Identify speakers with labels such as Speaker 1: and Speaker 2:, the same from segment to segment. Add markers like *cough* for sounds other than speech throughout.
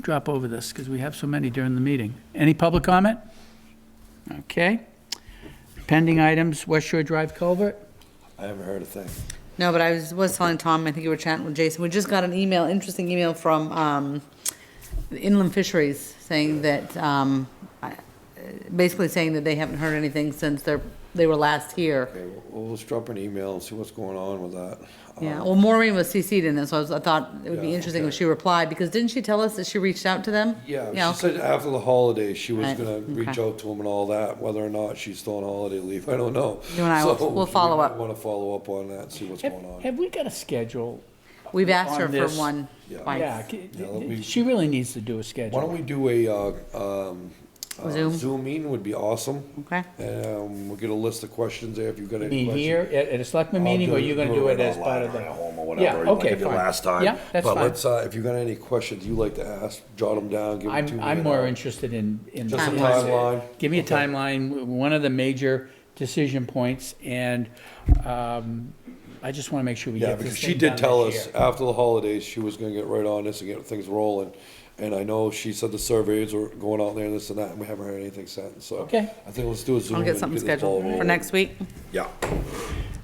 Speaker 1: drop over this, because we have so many during the meeting. Any public comment? Okay. Pending items, West Shore Drive culvert?
Speaker 2: I haven't heard a thing.
Speaker 3: No, but I was, was telling Tom, I think you were chatting with Jason, we just got an email, interesting email from, um, Inland Fisheries saying that, um, I- basically saying that they haven't heard anything since their, they were last here.
Speaker 2: Okay, we'll- we'll just drop an email and see what's going on with that.
Speaker 3: Yeah,
Speaker 2: Um,
Speaker 3: well, Maureen was CC'd in this, so I was, I thought it would be
Speaker 2: Yeah,
Speaker 3: interesting
Speaker 2: okay.
Speaker 3: if she replied, because didn't she tell us that she reached out to them?
Speaker 2: Yeah, she said after the holidays, she was
Speaker 3: Right,
Speaker 2: gonna reach
Speaker 3: okay.
Speaker 2: out to him and all that, whether or not she's still on holiday leave, *laughs* I don't know.
Speaker 3: You and I
Speaker 2: *laughs*
Speaker 3: will-
Speaker 2: So,
Speaker 3: we'll follow
Speaker 2: we
Speaker 3: up.
Speaker 2: might Wanna follow up on that, see what's
Speaker 1: Have
Speaker 2: going on.
Speaker 1: have we got a schedule?
Speaker 3: We've asked her
Speaker 1: on
Speaker 3: for
Speaker 1: this-
Speaker 3: one
Speaker 2: Yeah.
Speaker 1: Yeah,
Speaker 3: twice.
Speaker 1: c-
Speaker 2: Yeah, that'll be-
Speaker 1: she really needs to do a schedule.
Speaker 2: Why don't we do a, uh, um, uh,
Speaker 3: Zoom?
Speaker 2: Zoom meeting would be awesome.
Speaker 3: Okay.
Speaker 2: Um, we'll get a list of questions there if you've got any
Speaker 1: Meet
Speaker 2: questions.
Speaker 1: here at, at a selectman
Speaker 2: I'll
Speaker 1: meeting, or
Speaker 2: do it-
Speaker 1: you're gonna
Speaker 2: do
Speaker 1: do it
Speaker 2: it
Speaker 1: as
Speaker 2: online
Speaker 1: part of
Speaker 2: or
Speaker 1: the?
Speaker 2: at home or whatever,
Speaker 1: Yeah,
Speaker 2: like
Speaker 1: okay,
Speaker 2: I did
Speaker 1: fine.
Speaker 2: last time.
Speaker 1: Yeah, that's
Speaker 2: But
Speaker 1: fine.
Speaker 2: let's, uh, if you've got any questions you'd like to ask, jot them down, give them to
Speaker 1: I'm,
Speaker 2: me.
Speaker 1: I'm
Speaker 2: and
Speaker 1: more
Speaker 2: I'll-
Speaker 1: interested in, in.
Speaker 2: Just
Speaker 3: a
Speaker 2: timeline?
Speaker 1: Give me a
Speaker 2: Okay.
Speaker 1: timeline, w- one of the major decision points, and, um, I just wanna make sure we
Speaker 2: Yeah,
Speaker 1: get this
Speaker 2: because she
Speaker 1: thing done
Speaker 2: did tell
Speaker 1: this
Speaker 2: us
Speaker 1: year.
Speaker 2: after the holidays, she was gonna get right on this and get things rolling. And I know she said the surveys were going out there, this and that, and we haven't heard anything since, so.
Speaker 1: Okay.
Speaker 2: I think let's do a Zoom.
Speaker 3: I'll get
Speaker 2: and
Speaker 3: something
Speaker 2: this ball
Speaker 3: scheduled for
Speaker 2: rolling.
Speaker 3: next week.
Speaker 2: Yeah.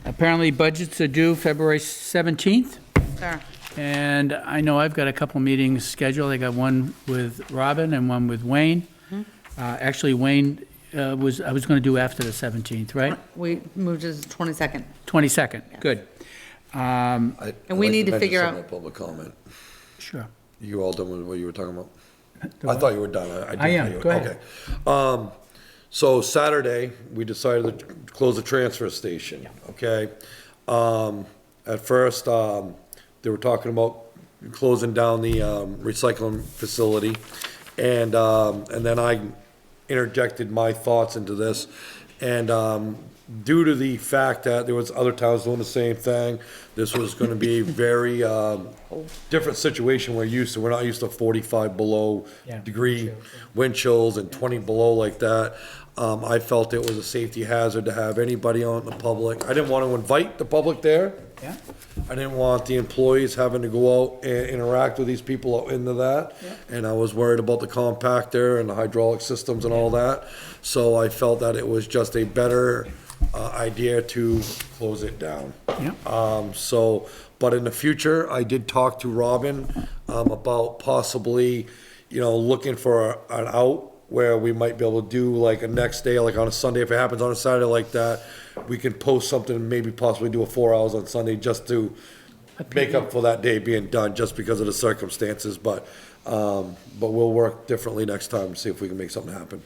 Speaker 1: Apparently budgets are due February seventeenth,
Speaker 3: Sure.
Speaker 1: and I know I've got a couple meetings scheduled, I got one with Robin and one with Wayne.
Speaker 3: Mm-hmm.
Speaker 1: Uh, actually, Wayne, uh, was, I was gonna do after the seventeenth, right?
Speaker 3: We moved to the twenty-second.
Speaker 1: Twenty-second, good, Um,
Speaker 2: I-
Speaker 3: And
Speaker 2: I'd
Speaker 3: we
Speaker 2: like to
Speaker 3: need to
Speaker 2: mention
Speaker 3: figure
Speaker 2: something
Speaker 3: out-
Speaker 2: about Public comment.
Speaker 1: sure.
Speaker 2: You all done with what you were talking about?
Speaker 1: The
Speaker 2: I
Speaker 1: what?
Speaker 2: thought you were done. I- I did
Speaker 1: I am.
Speaker 2: tell you-
Speaker 1: Go ahead.
Speaker 2: Okay. Um, so Saturday, we decided to close the transfer station, okay? Um, at first, um, they were talking about closing down the, um, recycling facility. And, um, and then I interjected my thoughts into this. And, um, due to the fact that there was other towns doing the same thing, this was gonna be very, um, different situation we're used to. We're not used to forty-five below
Speaker 1: Yeah.
Speaker 2: degree wind chills and twenty below like that. Um, I felt it was a safety hazard to have anybody on the public. I didn't want to invite the public there.
Speaker 1: Yeah.
Speaker 2: I didn't want the employees having to go out and interact with these people out into that. And I was worried about the compactor and the hydraulic systems and all that. So I felt that it was just a better, uh, idea to close it down.
Speaker 1: Yeah.
Speaker 3: Uh,
Speaker 2: Um, so, but in the future, I did talk to Robin, um, about possibly, you know, looking for a- an out where we might be able to do like a next day, like on a Sunday, if it happens on a Saturday like that, we can post something and maybe possibly do a four hours on Sunday just to make up for that day being done, just because of the circumstances, but, um, but we'll work differently next time, and see if we can make something happen.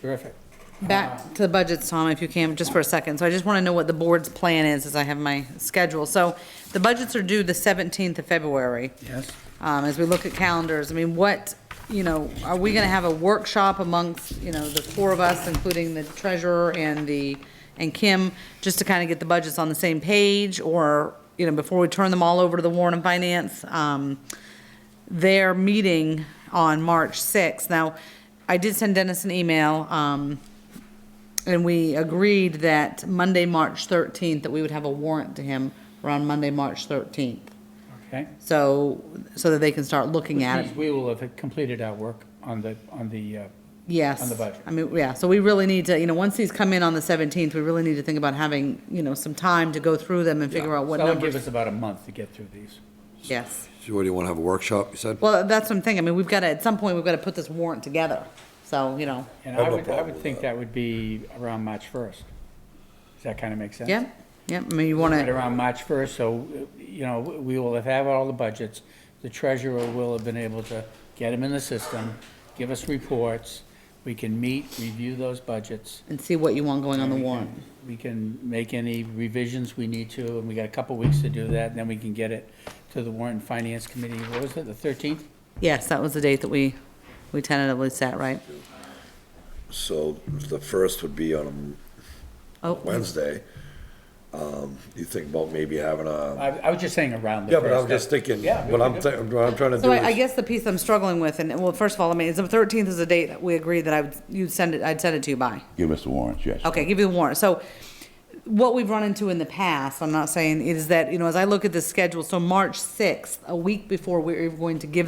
Speaker 1: Terrific.
Speaker 3: Back to the budgets, Tom, if you can, just for a second. So I just want to know what the board's plan is, as I have my schedule. So the budgets are due the 17th of February.
Speaker 1: Yes.
Speaker 3: Um, As we look at calendars, I mean, what, you know, are we going to have a workshop amongst, you know, the four of us, including the treasurer and the, and Kim, just to kind of get the budgets on the same page? Or, you know, before we turn them all over to the Warren and Finance? Um, their meeting on March 6th. Now, I did send Dennis an email, um, and we agreed that Monday, March 13th, that we would have a warrant to him around Monday, March 13th.
Speaker 1: Okay.
Speaker 3: So, so that they can start looking at
Speaker 1: Means
Speaker 3: it.
Speaker 1: we will have completed our work on the, on the, uh,
Speaker 3: Yes.
Speaker 1: on the budget.
Speaker 3: I mean, yeah, so we really need to, you know, once these come in on the 17th, we really need to think about having, you know, some time to go through them and figure out what
Speaker 1: that'll give
Speaker 3: numbers.
Speaker 1: us about a month to get through these.
Speaker 3: Yes.
Speaker 2: So what, do you wanna have a workshop, you said?
Speaker 3: Well, that's what I'm thinking. I mean, we've got to, at some point, we've got to put this warrant together. So, you know,
Speaker 1: And
Speaker 2: I
Speaker 1: I
Speaker 2: have no
Speaker 1: would, I
Speaker 2: problem
Speaker 1: would
Speaker 2: with
Speaker 1: think
Speaker 2: that.
Speaker 1: that would be around March 1st. Does that kind of make sense?
Speaker 3: yeah, yeah, I mean, you want
Speaker 1: Right
Speaker 3: to,
Speaker 1: around March 1st, so, uh, you know, we will have had all the budgets. The treasurer will have been able to get them in the system, give us reports. We can meet, review those budgets.
Speaker 3: and see what you want going on the
Speaker 1: We can-
Speaker 3: warrant.
Speaker 1: We can make any revisions we need to, and we got a couple weeks to do that, and then we can get it to the warrant and finance committee. What was it, the 13th?
Speaker 3: Yes, that was the date that we, we tentatively set, right?
Speaker 2: So the first would be on
Speaker 3: Oh,
Speaker 2: Wednesday. um, You think about maybe having a
Speaker 1: I, I was just saying around the
Speaker 2: Yeah,
Speaker 1: first.
Speaker 2: but I'm just thinking,
Speaker 1: Yeah, we
Speaker 2: what
Speaker 1: can
Speaker 2: I'm,
Speaker 1: do
Speaker 2: thi- what I'm trying to do
Speaker 3: so I, I
Speaker 2: is,
Speaker 3: guess the piece I'm struggling with, and, well, first of all, I mean, it's the thirteenth is the date that we agreed that I would, you'd send it, I'd send it to you by.
Speaker 4: Give us the warrants, yes.
Speaker 3: Okay, give you the warrant. So what we've run into in the past, I'm not saying, is that, you know, as I look at the schedule, so March sixth, a week before we're going to give